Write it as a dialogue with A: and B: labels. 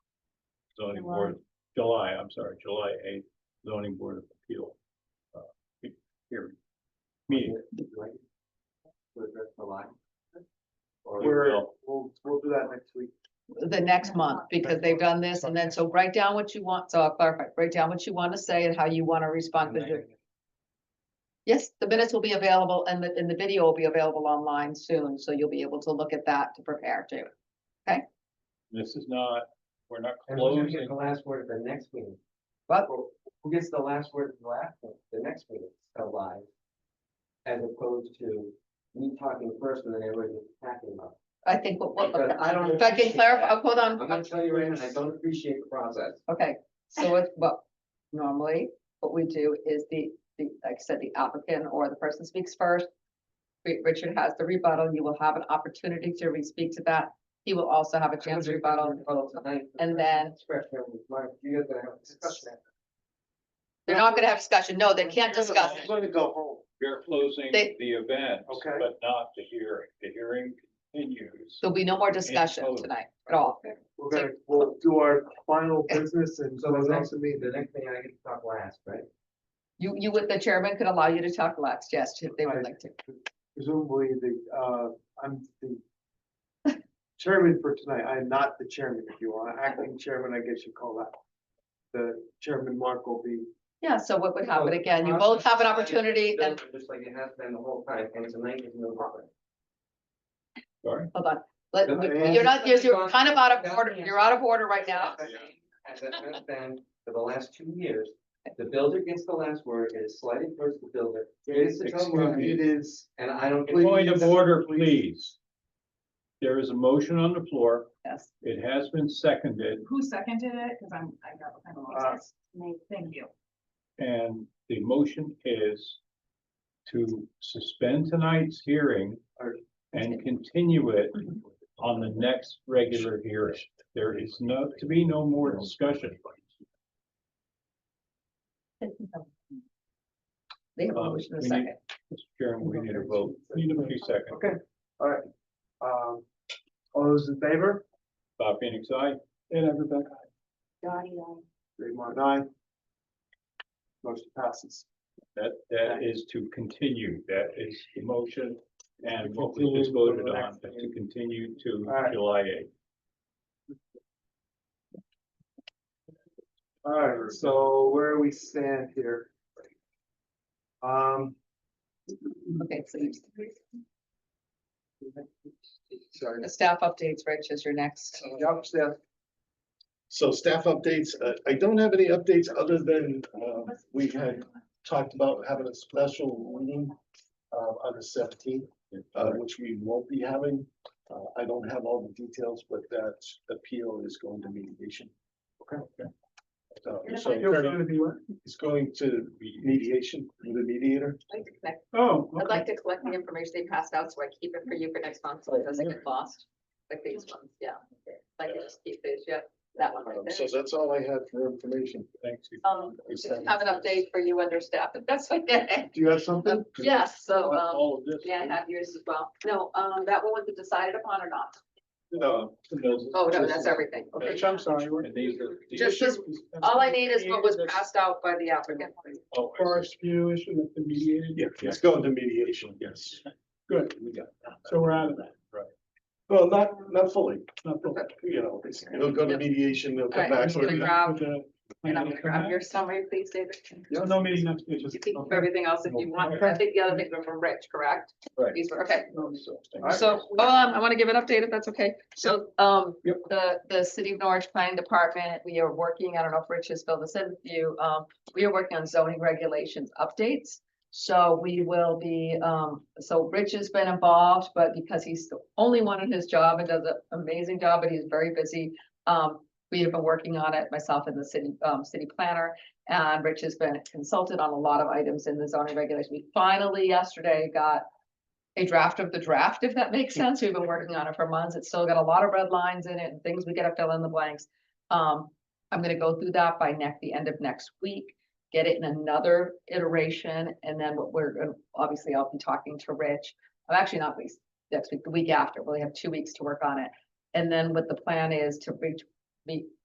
A: zoning board, July, I'm sorry, July eighth, zoning board of appeal. uh, he- Hearing. Meeting,
B: to address the line.
A: or
B: We're,
A: will,
B: we'll, we'll do that next week.
C: the next month, because they've done this, and then, so write down what you want, so I'll clarify, write down what you want to say and how you want to respond, because you're. Yes, the minutes will be available, and the, and the video will be available online soon, so you'll be able to look at that to prepare too.
A: this is not, we're not
B: And who's gonna get
A: closing,
B: the last word at the next meeting?
C: What?
B: Who- Who gets the last word at the last, one? the next meeting, a live? As opposed to me talking first and then everybody talking about.
C: I think what, what,
B: Because I don't.
C: if I can
B: appreciate
C: clarify,
B: that.
C: oh, hold
B: I'm
C: on,
B: gonna tell you right now, I don't appreciate the process.
C: okay, so it's, well, normally, what we do is the, the, like I said, the applicant or the person speaks first. Ri- Richard has the rebuttal, you will have an opportunity to re-speak to that, he will also have a chance to rebuttal.
B: tonight.
C: And then-
B: Discretion, Mark, you guys gonna have a discussion.
C: They're not gonna have discussion, no, they can't discuss it.
B: gonna go home.
A: we're closing
C: They-
A: the event,
B: Okay.
A: but not the hearing, the hearing continues.
C: There'll be no more discussion
A: totally.
C: tonight at all.
D: We're gonna, we'll do our final business and
B: So the
D: close out
B: next,
D: the meeting.
B: the next thing I get to talk last, right?
C: You, you with the chairman could allow you to talk last, yes, if they would
D: Right.
C: like to.
D: Presumably the, uh, I'm the chairman for tonight. I am not the chairman if you want. Acting chairman, I guess you call that. The chairman Mark will be,
C: Yeah, so what would
B: Oh,
C: happen again? You
B: I'm
C: both have an
B: just-
C: opportunity and,
B: Just like it has been the whole time, and tonight is no problem.
A: Sorry,
C: hold on. Let,
B: No,
C: we-
D: and-
C: you're not, you're- you're kind of out of
B: That's
C: order,
B: the
C: you're out of order right now.
B: As it has been for the last two years, the builder gets the last word, it is slightly towards the builder, he gets to tell
A: Excuse
B: why,
A: me.
D: it is,
B: and I don't. get-
A: point of order, please. There is a motion on the floor,
C: Yes.
A: it has been seconded,
E: Who seconded it? Cause I'm, I got kind of lost. Thank you.
A: and the motion is to suspend tonight's hearing and continue it on the next regular hearing. There is no, to be no more discussion.
C: They have a
A: Uh,
C: motion in
A: we
C: a
A: need-
C: second.
A: Mr. Chairman, we need a vote. Need a few seconds.
D: okay, all right. Um, all those in favor?
A: Bob Phoenix, aye. And everybody.
D: Dave Martin, aye. Motion passes.
A: That, that is to continue. That is the motion. And what we just voted on, is to continue to
D: Alright.
A: July eighth.
D: All right, so where we stand here? Um,
C: Okay, so you-
D: sorry.
C: the staff updates, Rich, is your next.
B: Uh,
D: Job staff
F: So staff updates, uh, I don't have any updates other than, um, we had talked about having a special meeting uh, on the seventeenth, uh, which we won't be having. Uh, I don't have all the details, but that appeal is going to mediation.
D: Okay.
F: So so
D: You're gonna be what?
F: it's going to mediation with the mediator.
C: I'd like to collect-
D: Oh.
C: I'd
D: okay.
C: like to collect the information they passed out, so I keep it for you for next month, so it doesn't get lost. Like these ones, yeah. Like just keep these, yeah, that one right
F: Um,
C: there.
F: So that's all I had for information.
A: Thanks. you-
C: Um, just have an update for you under staff, if that's what they,
D: Do you have something?
C: um, yes, so, um,
A: All of this.
C: yeah, I have yours as well. No, um, that one was it decided upon or not?
F: Uh,
A: No.
C: Oh, no, that's everything. Okay.
D: Rich, I'm sorry. we're-
A: And these are. these
C: Just- just-
A: are-
C: All I need is what was passed out by the applicant.
A: Oh, I see.
D: Forest view issue with the mediated.
F: Yeah, it's going to mediation, yes.
D: Good,
F: We got that.
D: so we're out of that.
F: Well, not, not fully,
D: Not the-
F: you know, it's- it'll go to mediation, they'll come
C: Alright,
F: back.
C: I'm gonna
F: with-
C: grab,
D: with the-
C: and I'm gonna grab your summary, please, David.
D: No, no meeting next week. just-
C: You can keep
D: okay.
C: everything else if you want. I think the other things were from Rich, correct?
A: Right.
C: These were, okay.
A: No, so-
C: So, um, I want to give an update if that's okay. So, um,
A: Yep.
C: the, the city of Norwich Planning Department, we are working, I don't know if Rich has filled this in with you, um, we are working on zoning regulations updates. So we will be, um, so Rich has been involved, but because he's the only one in his job and does an amazing job, but he's very busy. Um, we have been working on it, myself and the city, um, city planner, and Rich has been consulted on a lot of items in the zoning regulation. We finally yesterday got a draft of the draft, if that makes sense. We've been working on it for months. It's still got a lot of red lines in it and things we gotta fill in the blanks. Um, I'm gonna go through that by neck, the end of next week, get it in another iteration, and then what we're, gonna- obviously, I'll be talking to Rich. I'm actually not weeks, next week, the week after, we'll have two weeks to work on it. And then what the plan is to reach, meet